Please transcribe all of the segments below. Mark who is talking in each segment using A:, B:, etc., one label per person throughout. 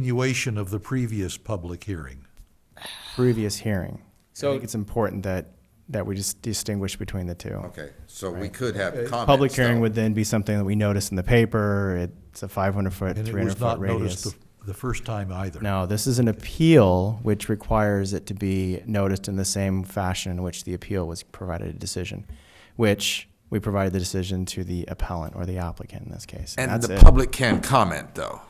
A: continuation of the previous public hearing.
B: previous hearing. So I
C: So-
B: think it's important that, that we just distinguish between the two.
D: Okay, so we could have comments.
B: Public hearing
D: though.
B: would then be something that we notice in the paper. It's a five hundred foot,
A: And it
B: three
A: was
B: hundred
A: not
B: foot
A: noticed
B: radius.
A: the, the first time either.
B: No, this is an appeal which requires it to be noticed in the same fashion in which the appeal was provided a decision, which we provided the decision to the appellant or the applicant in this case.
D: And
B: that's
D: the
B: it.
D: public can comment, though.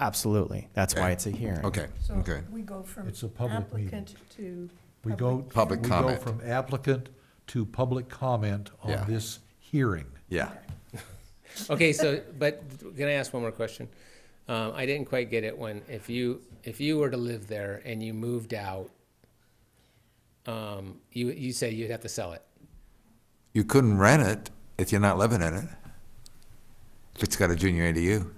B: Absolutely. That's why it's a hearing.
D: Okay,
E: So
D: okay.
E: we go from
A: It's a public meeting.
E: applicant to.
A: We go.
D: Public
E: public.
A: we go
D: comment.
A: From applicant to public comment on
D: Yeah.
A: this hearing.
D: Yeah.
C: Okay, so, but can I ask one more question? Um, I didn't quite get it when, if you, if you were to live there and you moved out, um, you, you say you'd have to sell it.
D: You couldn't rent it if you're not living in it. If it's got a junior ADU,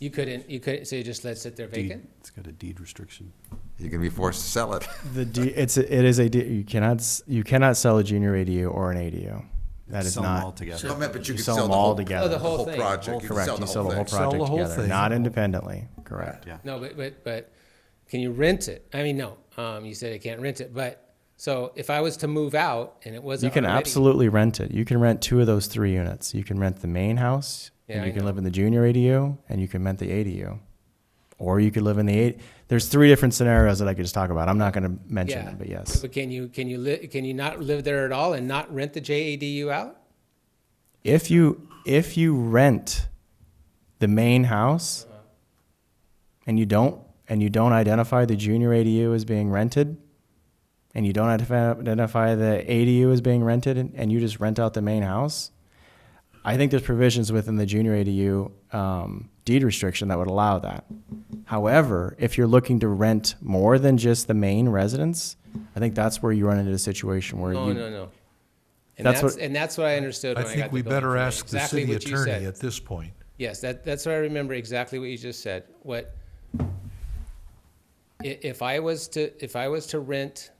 C: You couldn't, you couldn't, so you just let it sit there vacant?
F: It's got a deed restriction.
D: you're gonna be forced to sell it.
B: The D, it's a, it is a D, you cannot s- you cannot sell a junior ADU or an ADU. That is
F: Sell 'em all
B: not
F: together.
D: No, I meant, but you
B: you
D: could
B: sell
D: sell
B: them
D: the
B: all
D: whole.
B: together.
C: Oh, the whole thing.
D: project. You could
B: Correct. You sell the whole
D: thing.
A: Sell
B: project
A: the whole
B: together,
A: thing.
B: not independently. Correct.
F: Yeah.
C: No, but, but, but can you rent it? I mean, no, um, you said I can't rent it, but, so if I was to move out and it
B: You
C: wasn't
B: can
C: already-
B: absolutely rent it. You can rent two of those three units. You can rent the main house,
C: Yeah,
B: and
C: I
B: you can
C: know.
B: live in the junior ADU, and you can rent the ADU, or you could live in the eight. There's three different scenarios that I could just talk about. I'm not going to mention
C: Yeah.
B: them, but yes,
C: But can you, can you li, can you not live there at all and not rent the JADU out?
B: if you if you rent the main house, and you don't and you don't identify the junior ADU as being rented, and you don't identify- identify the ADU as being rented, and- and you just rent out the main house, I think there's provisions within the junior ADU um, deed restriction that would allow that. However, if you're looking to rent more than just the main residence, I think that's where you run into a situation where
C: No,
B: you
C: no, no. And
B: That's
C: that's,
B: what-
C: and that's what I understood
A: I
C: when I got the
A: think we
C: building
A: better
C: permit.
A: ask the
C: Exactly
A: city
C: what you said.
A: attorney at this point.
C: Yes, that, that's what I remember exactly what you just said. What, i- if I was to, if I was to rent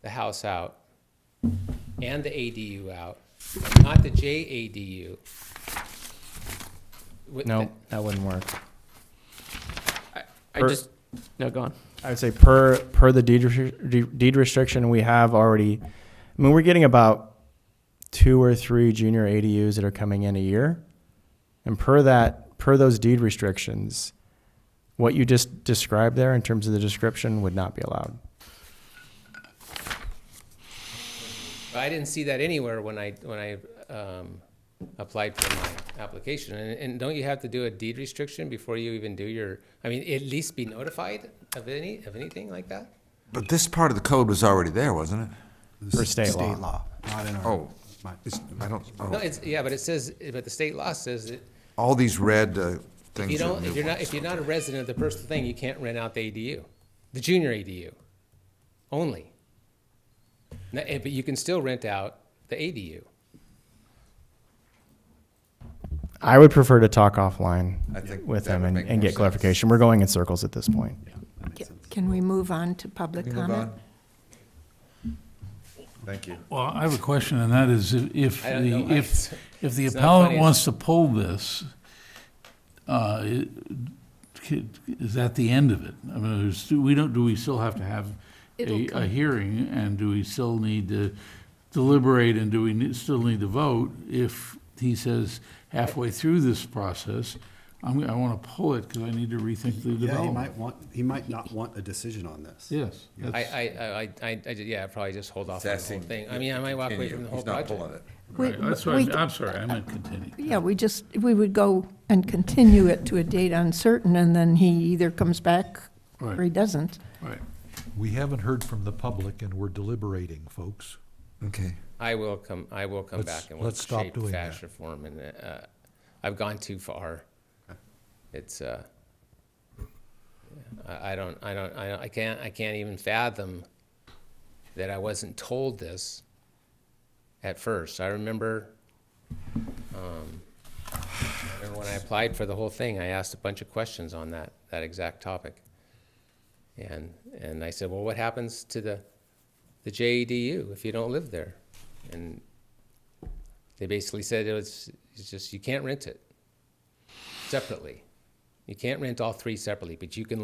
C: the house out and the ADU out, not the JADU. would-
B: no that wouldn't work.
G: I
B: Per-
G: just no go on.
B: I would say per per the deed, restri- deed restriction, we have already. I mean, we're getting about two or three junior ADUs that are coming in a year, and per that per those deed restrictions, what you just described there in terms of the description would not be allowed.
C: I didn't see that anywhere when I, when I, um, applied for my application. And, and don't you have to do a deed restriction before you even do your, I mean, at least be notified of any, of anything like that?
D: But this part of the code was already there, wasn't it?
F: This
B: For
F: is
B: state law.
F: not in our.
D: Oh.
F: my-
D: I don't,
C: No,
D: oh,
C: it's, yeah, but it says, but the state law says that
D: all these red uh,
C: if
D: things.
C: you
D: are
C: don't, if
D: new
C: you're not,
D: ones.
C: if you're not a resident of the personal thing, you can't rent out the ADU, the junior ADU only. Now, eh, But you can still rent out the ADU.
B: I would prefer to talk offline
D: I think
B: with
D: that
B: them
D: would
B: and,
D: make
B: and
D: more
B: get
D: sense.
B: clarification. We're going in circles at this point.
E: Can we move on to public
D: Can we move
E: comment?
D: on? Thank you.
H: Well, I have a question, and that is if- if,
C: I don't know
H: the
C: why
H: if,
C: it's-
H: if the
C: it's not
H: appellant
C: funny.
H: wants to pull this, uh, it- is that the end of it? I mean, there's, do we don't, do we still have to have a, a hearing, and do we still need to deliberate, and do we ne- still need to vote if he says halfway through this process, I'm, I want to pull it because I need to rethink the
F: Yeah, he
H: development?
F: might want, he might not want a decision on this.
H: Yes.
C: I,
H: that's-
C: I, I, I, I, I ju- yeah, I'd probably just hold off on the whole
D: Sassing-
C: thing. I mean, I might walk away
D: Continue.
C: from the whole
D: He's not
C: project.
D: pulling it.
E: We-
H: Right, That's
E: we-
H: right, I'm sorry, I meant continue.
E: Yeah, we just, we would go and continue it to a date uncertain, and then he either comes back or he
H: Right.
E: doesn't.
H: Right.
A: We haven't heard from the public and we're deliberating, folks.
D: Okay.
C: I will come, I will come
A: Let's-
C: back in one
A: let's stop
C: shape,
A: doing
C: fashion,
A: that.
C: or form, and, uh, I've gone too far. It's, uh, I, I don't, I don't, I, don't- I can't, I can't even fathom that I wasn't told this at first. I remember, um, I remember when I applied for the whole thing, I asked a bunch of questions on that, that exact topic. And, and I said, well, what happens to the, the JEDU if you don't live there? And oh, they basically said it was, it's just, you can't rent it separately. You can't rent all three separately, but you can